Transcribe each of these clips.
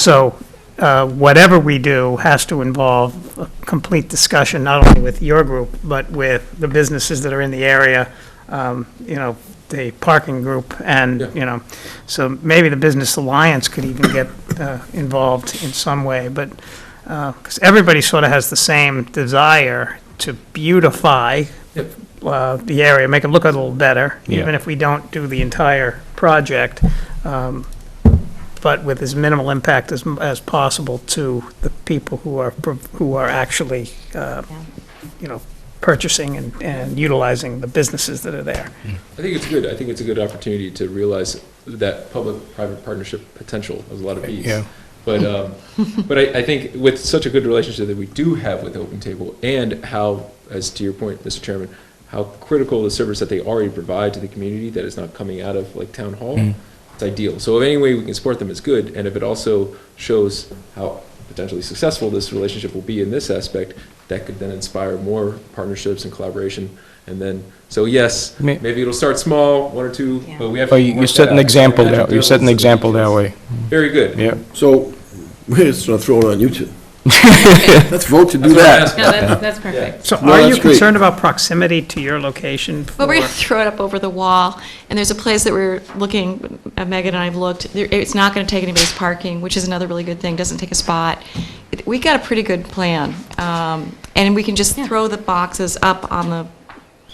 So uh, whatever we do has to involve a complete discussion, not only with your group, but with the businesses that are in the area, um, you know, the parking group, and, Yeah. you know, so maybe the Business Alliance could even get uh, involved in some way, but, because everybody sort of has the same desire to beautify Yep. uh, the area, make it look a little better, Yeah. even if we don't do the entire project, um, but with as minimal impact as, as possible to the people who are, pro- who are actually, uh, you know, purchasing and, and utilizing the businesses that are there. I think it's good. I think it's a good opportunity to realize that public-private partnership potential. There's a lot of Bs. Yeah. But, um, but I, I think with such a good relationship that we do have with Open Table and how, as to your point, Mr. Chairman, how critical the service that they already provide to the community that is not coming out of like town hall, it's ideal. So if any way we can support them is good, and if it also shows how potentially successful this relationship will be in this aspect, that could then inspire more partnerships and collaboration. And then, so yes, May- maybe it'll start small, one or two, Yeah. but we have to. Oh, you, work you set that an out. example We have that, to you set an build some example that details. way, Very good. yeah. So, we're just gonna throw it on you two. Let's vote to That's what I'm do that. asking. No, that's, that's perfect. So No, are you that's great. concerned about proximity to your location? But we're for- going to throw it up over the wall, and there's a place that we're looking, uh, Megan and I have looked, there- it's not going to take anybody's parking, which is another really good thing, doesn't take a spot. It- We got a pretty good plan, um, and we can just throw the boxes up on the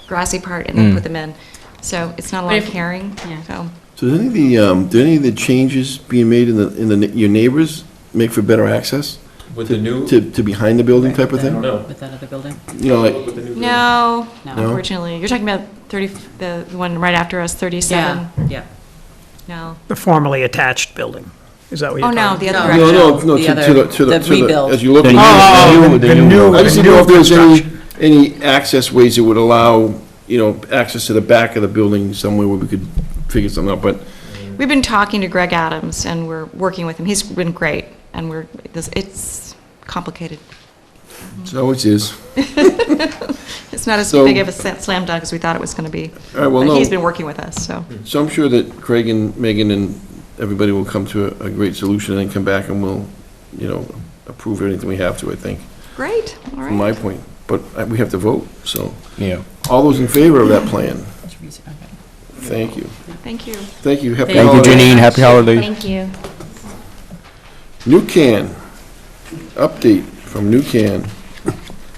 grassy part Mm. and then put them in. So it's not a lot of if- carrying, yeah. so. So did any of the, um, did any of the changes being made in the, in the, your neighbors make for better access? With the new, To, to behind the building type of thing? No. With that other building? You know, like, with the new. No, No. No? unfortunately. You're talking about 30, the one right after us, 37? Yeah. No. The formerly attached building? Is that what you're Oh, talking no, about? the other No. no, direction. no, no, The to to the, other- to the, the to the, rebuild. as you look. The new- Oh, the oh, new- the the new new- I one. just didn't know if there was any, any access ways that would allow, you know, access to the back of the building somewhere where we could figure something out, but We've been talking to Greg Adams, and we're working with him. He's been great, and we're, this- it's complicated. it always is. It's not as So- big of a sa- slam dunk as we thought it was going to be. All right, well, But he's no. been working with us, so. So I'm sure that Craig and Megan and everybody will come to a, a great solution and come back and we'll, you know, approve anything we have to, I think, Great, all from my right. point. But uh, we have to vote, so. Yeah. All those in favor of that plan? That's easy, okay. Thank you. Thank you. Thank you. Happy Thank you, holidays. Janine, happy holidays. Thank you. New Can, update from New Can.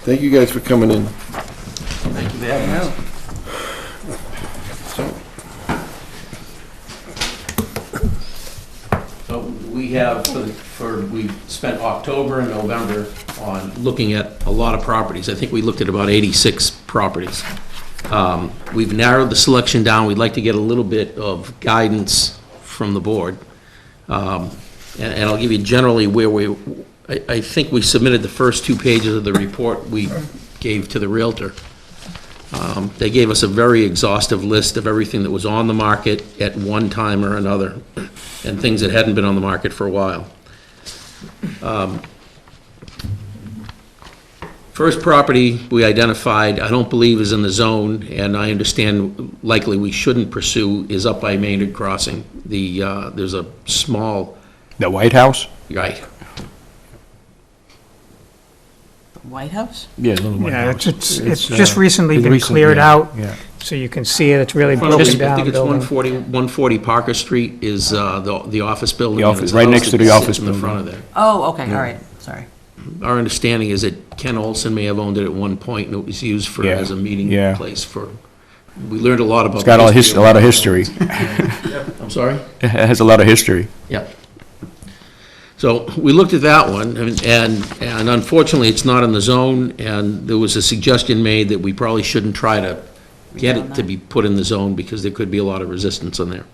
Thank you guys for coming in. So we have, for the- for, we spent October and November on looking at a lot of properties. I think we looked at about 86 properties. Um, We've narrowed the selection down. We'd like to get a little bit of guidance from the board. Um, And and I'll give you generally where we, I I think we submitted the first two pages of the report we gave to the Realtor. Um, They gave us a very exhaustive list of everything that was on the market at one time or another, and things that hadn't been on the market for a while. Um, First property we identified, I don't believe is in the zone, and I understand likely we shouldn't pursue, is up by Maynard Crossing. The, uh, there's a small, The White House? right, The White House? Yeah, the White Yeah, it's, House. it's it's uh, just recently it's been recent, cleared yeah, out, Yeah. so you can see it, it's really I broken think down it's building. 140, 140 Parker Street is uh, the the office building. The and office- it's a right house next to that the sits office In the building. front of there. Oh, okay, all right, sorry. our understanding is that Ken Olson may have owned it at one point, and it was used for, Yeah, as a meeting yeah. place for, we learned a lot about. It's got all his, a lot of history. I'm sorry? It has a lot of history. Yeah. So we looked at that one, and, and unfortunately, it's not in the zone, and there was a suggestion made that we probably shouldn't try to get it to be put in the zone, because there could be a lot of resistance on there.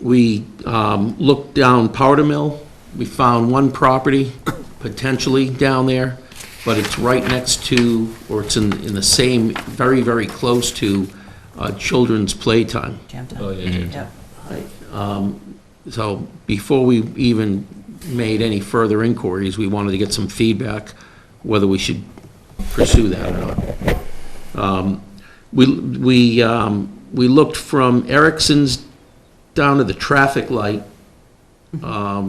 We um, looked down Powder Mill, we found one property potentially down there, but it's right next to, or it's in, in the same, very, very close to uh, children's playtime. Jam time. Oh, yeah, yeah. Yep. So before we even made any further inquiries, we wanted to get some feedback whether we should pursue that or not. Um, We, we, um, we looked from Erickson's down to the traffic light Um,